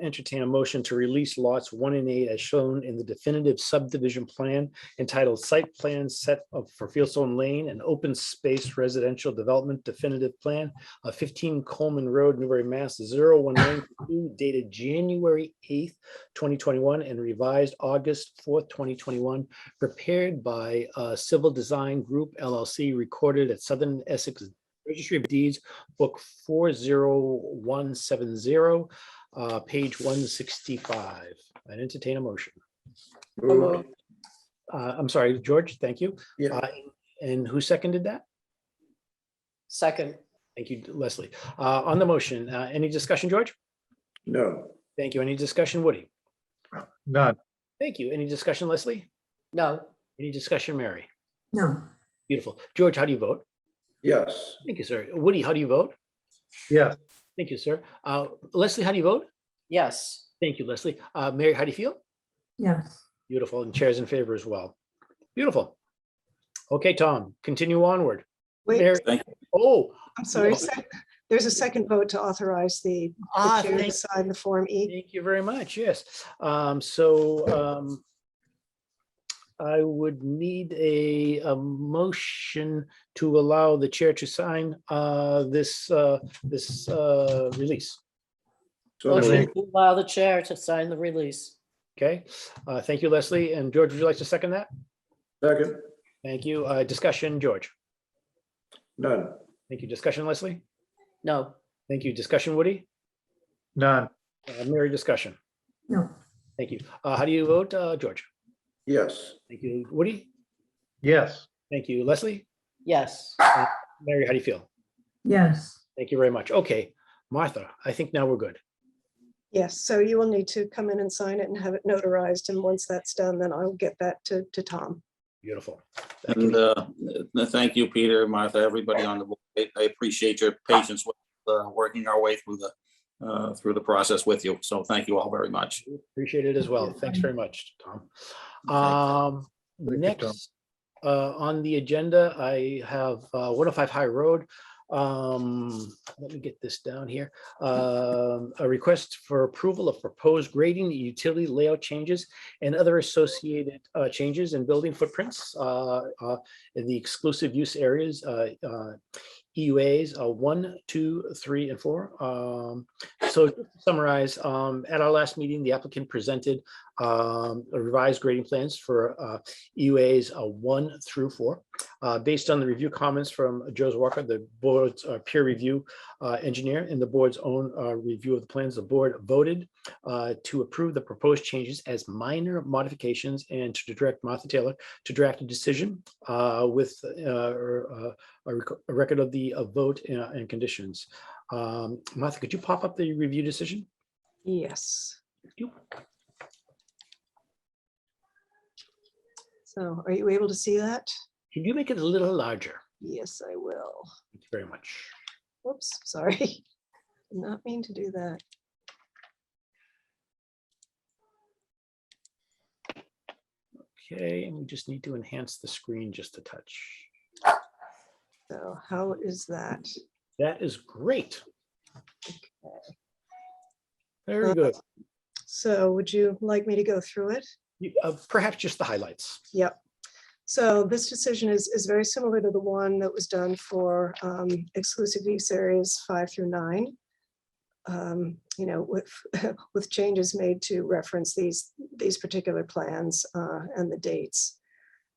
entertain a motion to release lots one and eight as shown in the definitive subdivision plan entitled Site Plan Set of- for Fieldstone Lane and Open Space Residential Development Definitive Plan of fifteen Coleman Road, Newbury, Mass. 01922, dated January eighth, twenty twenty-one and revised August fourth, twenty twenty-one, prepared by uh, Civil Design Group LLC, recorded at Southern Essex Registry of Deeds, Book four zero one seven zero, uh, page one sixty-five. I'd entertain a motion. Moved. Uh, I'm sorry, George, thank you. Yeah. Uh, And who seconded that? Second, Thank you, Leslie. Uh, On the motion, uh, any discussion, George? No. Thank you. Any discussion, Woody? None. Thank you. Any discussion, Leslie? no, Any discussion, Mary? no, Beautiful. George, how do you vote? Yes. Thank you, sir. Woody, how do you vote? Yes. Thank you, sir. Uh, Leslie, how do you vote? yes, Thank you, Leslie. Uh, Mary, how do you feel? yes, Beautiful. And chairs in favor as well. Beautiful. Okay, Tom, continue onward. Wait, Mary- Oh, I'm sorry. no. sec- There's a second vote to authorize the the Ah, chair to thank- sign the Form E. Thank you very much, yes. Um, so, um, I would need a, a motion to allow the chair to sign, uh, this, uh, this, uh, release. So motion moved. to allow the chair to sign the release. Okay, uh, thank you, Leslie. And George, would you like to second that? Second. Thank you. Uh, discussion, George. None. Thank you. Discussion, Leslie. No, Thank you. Discussion, Woody. None. Uh, Mary, discussion. no, Thank you. Uh, how do you vote, uh, George? Yes. Thank you, Woody. Yes. Thank you, Leslie. yes, Mary, how do you feel? yes, Thank you very much. Okay, Martha, I think now we're good. Yes, so you will need to come in and sign it and have it notarized. And once that's done, then I'll get that to, to Tom. Beautiful. Thank And you. uh, th- thank you, Peter, Martha, everybody on the board. I- I appreciate your patience with uh, working our way through the, uh, through the process with you. So thank you all very much. Appreciate it as well. Thanks very much, Tom. Um, Thank you, Tom. next, uh, on the agenda, I have, uh, one oh five High Road. Um, let me get this down here. Um, a request for approval of proposed grading, utility layout changes and other associated, uh, changes in building footprints, uh, uh, in the exclusive use areas, uh, uh, EUAs, uh, one, two, three, and four. Um, so just to summarize, um, at our last meeting, the applicant presented um, a revised grading plans for uh, EUAs uh, one through four. Uh, Based on the review comments from Joe's Walker, the board's uh, peer review uh, engineer and the board's own uh, review of the plans, the board voted uh, to approve the proposed changes as minor modifications and to direct Martha Taylor to draft a decision uh, with uh, or, uh, a rec- a record of the uh, vote and- and conditions. Um, Martha, could you pop up the review decision? Yes. You- So are you able to see that? Could you make it a little larger? Yes, I will. Thank you very much. Whoops, sorry. Did Not mean to do that. Okay, and we just need to enhance the screen just a touch. So how is that? That is great. Very good. So would you like me to go through it? You- uh, Perhaps just the highlights. So this decision is, is very similar to the one that was done for um, exclusive use areas five through nine. Um, You know, with, with changes made to reference these, these particular plans uh, and the dates.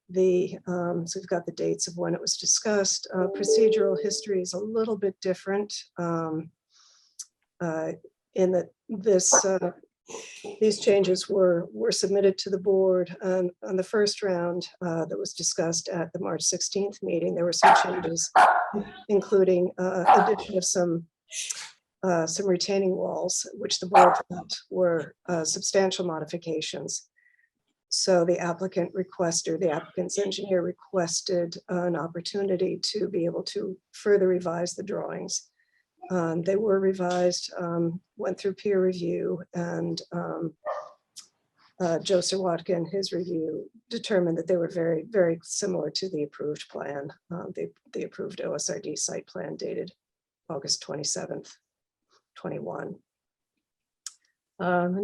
The, um, so we've got the dates of when it was discussed. Uh, Procedural history is a little bit different. um, uh, In that this uh, these changes were, were submitted to the board um, on the first round uh, that was discussed at the March 16th meeting. There were some changes, including uh, addition of some, uh, some retaining walls, which the board felt were uh, substantial modifications. So the applicant requested, the applicant's engineer requested an opportunity to be able to further revise the drawings. Um, They were revised, um, went through peer review and um, uh, Joseph Watkin, his review determined that they were very, very similar to the approved plan, uh, the, the approved OSRD site plan dated August 27th, 21. Um, Um,